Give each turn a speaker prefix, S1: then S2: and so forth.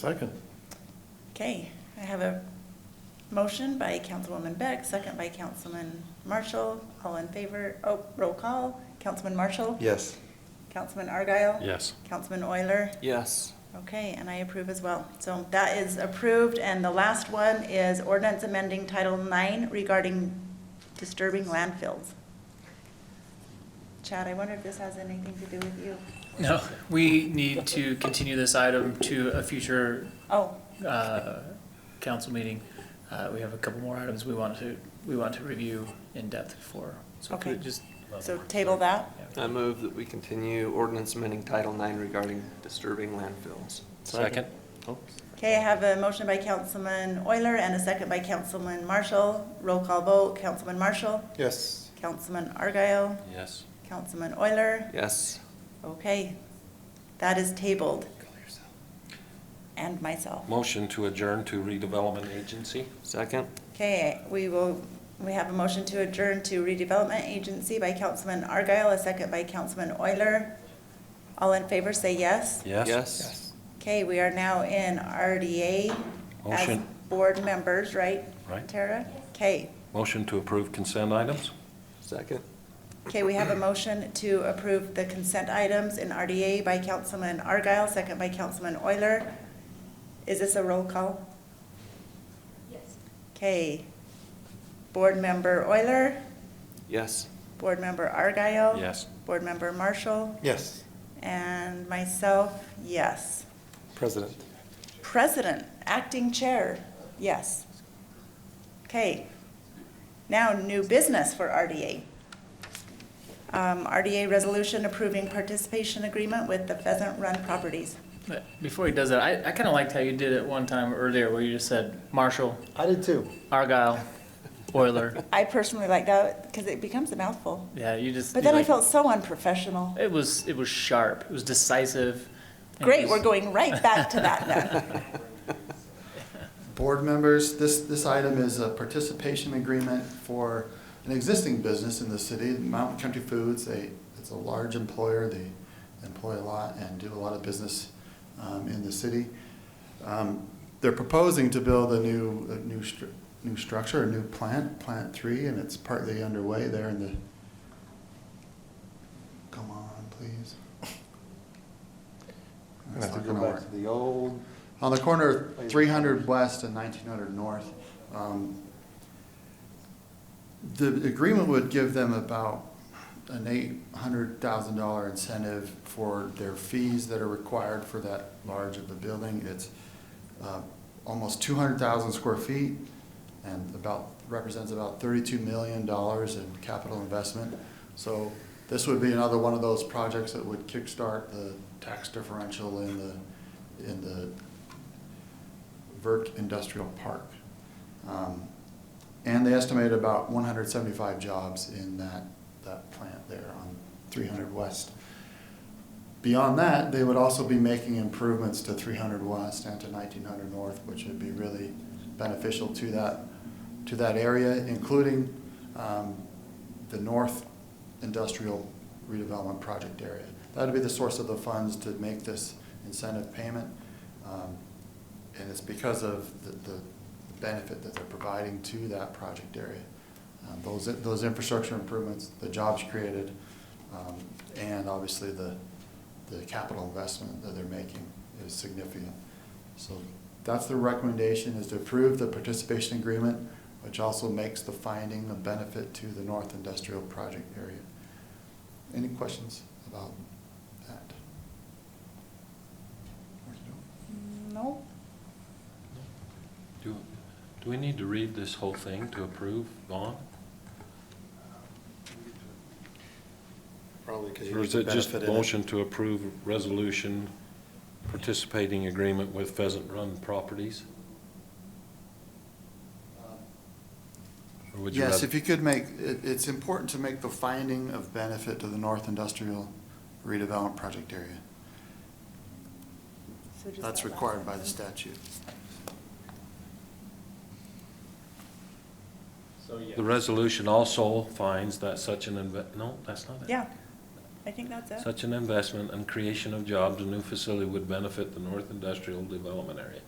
S1: Second.
S2: Okay, I have a motion by Councilwoman Beck, second by Councilman Marshall. All in favor, oh, roll call. Councilman Marshall?
S1: Yes.
S2: Councilman Argyle?
S3: Yes.
S2: Councilman Euler?
S4: Yes.
S2: Okay, and I approve as well. So that is approved, and the last one is ordinance amending Title IX regarding disturbing landfills. Chad, I wonder if this has anything to do with you?
S5: No, we need to continue this item to a future
S2: Oh,
S5: uh, council meeting. Uh, We have a couple more items we want to, we want to review in depth for. So could
S2: Okay.
S5: it just,
S2: so table that?
S4: I move that we continue ordinance amending Title IX regarding disturbing landfills.
S3: Second?
S2: Okay, I have a motion by Councilman Euler and a second by Councilman Marshall. Roll call vote, Councilman Marshall,
S1: Yes.
S2: Councilman Argyle,
S3: Yes.
S2: Councilman Euler.
S4: Yes.
S2: Okay, that is tabled. And myself.
S3: Motion to adjourn to redevelopment agency?
S4: Second?
S2: Okay, we will, we have a motion to adjourn to redevelopment agency by Councilman Argyle, a second by Councilman Euler. All in favor, say yes.
S3: Yes?
S4: Yes.
S2: Okay, we are now in RDA as
S3: Motion.
S2: board members, right?
S3: Right.
S2: Tara? Okay,
S3: Motion to approve consent items?
S4: Second?
S2: okay, we have a motion to approve the consent items in RDA by Councilman Argyle, second by Councilman Euler. Is this a roll call?
S6: Yes.
S2: Okay. Board member Euler?
S4: Yes.
S2: Board Member Argyle?
S3: Yes.
S2: Board Member Marshall?
S1: Yes.
S2: And myself, yes.
S1: President.
S2: President, Acting Chair, yes. Okay. Now, new business for RDA. Um, RDA Resolution approving participation agreement with the Pheasant Run Properties.
S5: but before he does that, I, I kind of liked how you did it one time earlier where you just said Marshall,
S1: I did too.
S5: Argyle, Euler.
S2: I personally like that because it becomes a mouthful.
S5: Yeah, you just.
S2: But
S5: you
S2: then I
S5: like-
S2: felt so unprofessional.
S5: It was, it was sharp. It was decisive. and it
S2: Great,
S5: was-
S2: we're going right back to that then.
S7: Board members, this, this item is a participation agreement for an existing business in the city, Mountain Country Foods. They, it's a large employer, they employ a lot and do a lot of business um, in the city. Um, They're proposing to build a new, a new, stru- new structure, a new plant, Plant Three, and it's partly underway there in the, come on, please.
S1: I have to
S7: It's
S1: go
S7: not gonna
S1: back
S7: work.
S1: to the old.
S7: On the corner of 300 West and 1900 North. Um, The agreement would give them about an $800,000 incentive for their fees that are required for that large of a building. It's uh, almost 200,000 square feet and about, represents about $32 million in capital investment. So this would be another one of those projects that would kickstart the tax differential in the, in the Vert Industrial Park. Um, And they estimate about 175 jobs in that, that plant there on 300 West. Beyond that, they would also be making improvements to 300 West and to 1900 North, which would be really beneficial to that, to that area, including um, the North Industrial Redevelopment Project area. That'd be the source of the funds to make this incentive payment. Um, And it's because of the, the benefit that they're providing to that project area. Um, Those, those infrastructure improvements, the jobs created, um, and obviously the, the capital investment that they're making is significant. So that's the recommendation, is to approve the participation agreement, which also makes the finding of benefit to the North Industrial Project area. Any questions about that?
S2: No,
S3: Do, do we need to read this whole thing to approve, Vaughn?
S1: Probably because you
S3: Or
S1: need
S3: is
S1: the
S3: it just
S1: benefit in it.
S3: motion to approve resolution participating agreement with Pheasant Run Properties? Or would you
S7: Yes,
S3: rather-
S7: if you could make, it, it's important to make the finding of benefit to the North Industrial Redevelopment Project area.
S2: so just
S7: That's
S2: that last
S7: required by the
S2: sentence.
S7: statute.
S3: The resolution also finds that such an, inve- no, that's not it.
S2: Yeah, I think that's it.
S3: Such an investment and creation of jobs and new facility would benefit the North Industrial Development Area.